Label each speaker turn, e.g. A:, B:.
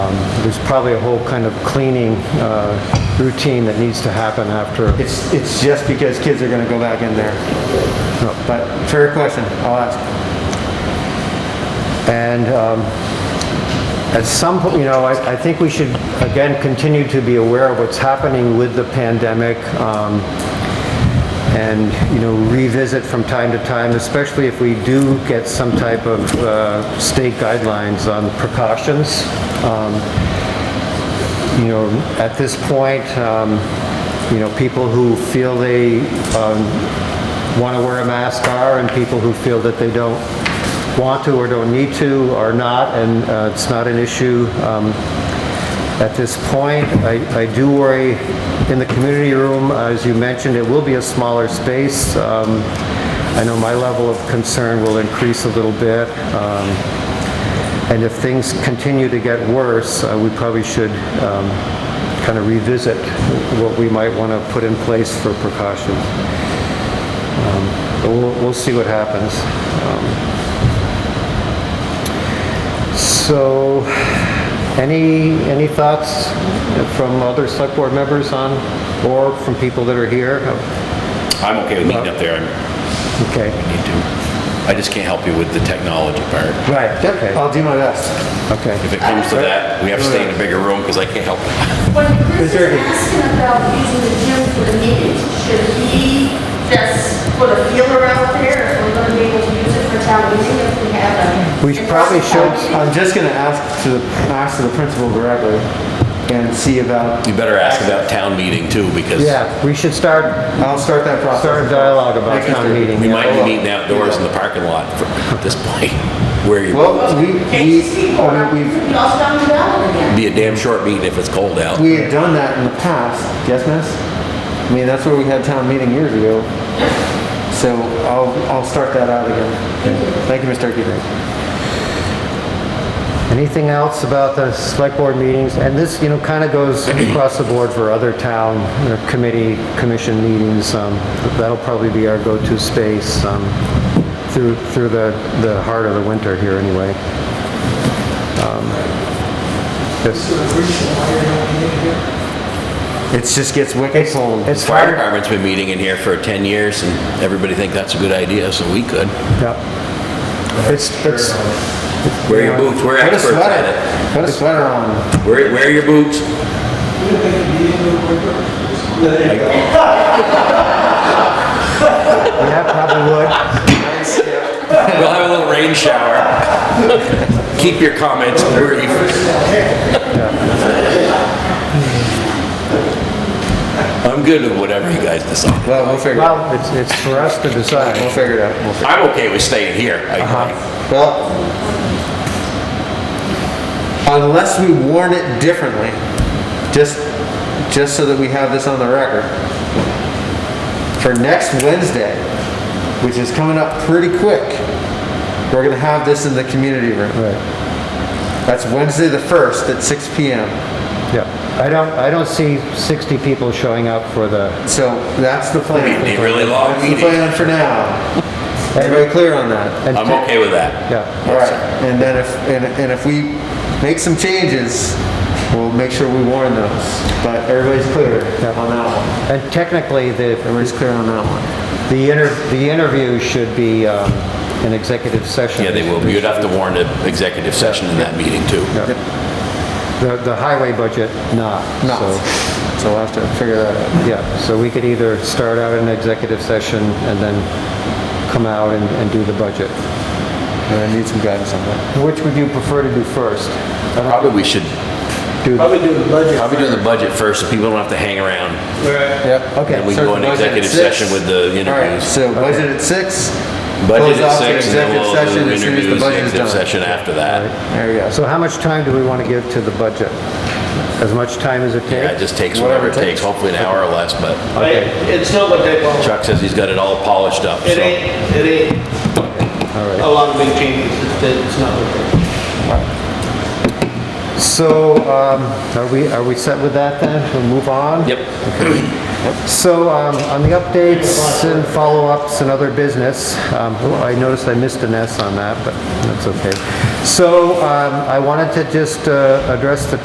A: Um, there's probably a whole kind of cleaning uh, routine that needs to happen after. It's, it's just because kids are going to go back in there. No, But fair question, I'll ask. And um, at some point, you know, I, I think we should, again, continue to be aware of what's happening with the pandemic. um, and, you know, revisit from time to time, especially if we do get some type of uh, state guidelines on precautions. Um, You know, at this point, um, you know, people who feel they want to wear a mask are, and people who feel that they don't want to or don't need to are not, and uh, it's not an issue. Um, at this point. I, I do worry, in the community room, as you mentioned, it will be a smaller space. Um, I know my level of concern will increase a little bit. Um, And if things continue to get worse, uh, we probably should kind of revisit what we might want to put in place for precautions. Um, But we'll, we'll see what happens. Um, So, any, any thoughts from other select board members on, or from people that are here? Oh,
B: I'm okay with meeting up there. I
A: Okay,
B: need to. I just can't help you with the technology part.
A: right, Uh, okay,
C: I'll do my best.
B: If
A: okay.
B: it comes to that, we have to stay in a bigger room because I can't help.
D: When
A: Is
D: Chris
A: there-
D: is asking about using the gym for the meetings, should he just put a feeler out there if we're gonna be able to use it for town meeting if we have a...
A: We probably should-
C: I'm just gonna ask to, the ask to the principal directly and see about,
B: You better ask about town meeting too because
A: Yeah, we should start,
C: I'll start that process.
A: start a dialogue about
C: Next
A: town
C: Tuesday.
A: meeting.
B: we
A: yeah.
B: might be meeting outdoors in the parking lot for- at this point. Where you,
C: Well, Oh, we,
D: Takes
C: we,
D: people,
C: I
D: out.
C: mean, we've,
D: we all down the ballot again.
B: be a damn short meeting if it's cold out.
C: we had done that in the past, yes, miss? I mean, that's where we had town meeting years ago. So I'll, I'll start that out again. Thank you, Mr. Keating.
A: Anything else about the select board meetings? And this, you know, kind of goes across the board for other town uh, committee, commission meetings. Um, That'll probably be our go-to space um, through, through the, the heart of the winter here anyway. Um, yes.
C: It just gets wicked cold.
A: It's
B: Fire
A: hard,
B: department's been meeting in here for 10 years and everybody think that's a good idea, so we could.
A: yeah. It's, it's,
B: Wear your boots, we're
C: Put a
B: experts at
C: sweater,
B: it.
C: put a sweater on.
B: Wear, wear your boots.
A: yeah, probably would.
B: We'll have a little rain shower. Keep your comments brief. I'm good with whatever you guys decide.
C: Well, we'll figure it out.
A: Well, it's, it's for us to
C: We'll
A: decide.
C: figure it out. We'll figure
B: I'm okay with staying here. I-
C: it out. Well, unless we warn it differently, just, just so that we have this on the record. For next Wednesday, which is coming up pretty quick, we're gonna have this in the community room.
A: Right,
C: That's Wednesday the 1st at 6 PM.
A: yeah. I don't, I don't see 60 people showing up for the
C: So that's the plan.
B: Be a really long
C: That's the
B: meeting.
C: plan for now. Everybody clear on that?
A: And
B: I'm
A: ta-
B: okay with that.
A: Yeah,
C: All right, and then if, and, and if we make some changes, we'll make sure we warn those. But everybody's clear on that one.
A: and technically, the,
C: Everybody's clear on that one.
A: the inter, the interview should be um, an executive session.
B: Yeah, they will. You'd have to warn the executive session in that meeting too.
A: The, the highway budget, not.
C: No,
A: So,
C: so we'll have to figure that out.
A: Yeah, so we could either start out an executive session and then come out and, and do the budget.
C: And I need some guidance on that.
A: Which would you prefer to do first?
B: Probably we should,
A: Do the-
E: Probably do the
B: probably
E: budget.
B: doing the budget first so people don't have to hang around.
E: Right.
C: Yep.
A: Okay.
B: And we
C: Start
B: go
C: the
B: in
C: budget at
B: executive
C: six.
B: session with the
C: All right,
B: interviews.
C: so budget at six.
B: Budget
C: close
B: at
C: off to
B: six and then we'll
C: executive session as soon as the
B: introduce
C: budget is
B: executive
C: done.
B: session after that.
C: There we go.
A: So how much time do we want to give to the budget? As much time as it
B: Yeah, it
A: takes?
B: just takes whatever it takes, hopefully an hour or less, but
E: But it- It's not what they want.
B: Chuck says he's got it all polished up,
E: It
B: so.
E: ain't, it ain't
A: All right.
E: a lot of big changes. It's- It's not what they want.
A: So, um, are we, are we set with that then? We'll move on?
B: Yep.
A: So, um, on the updates and follow-ups and other business, um, oh, I noticed I missed an S on that, but that's okay. So, um, I wanted to just, uh, address the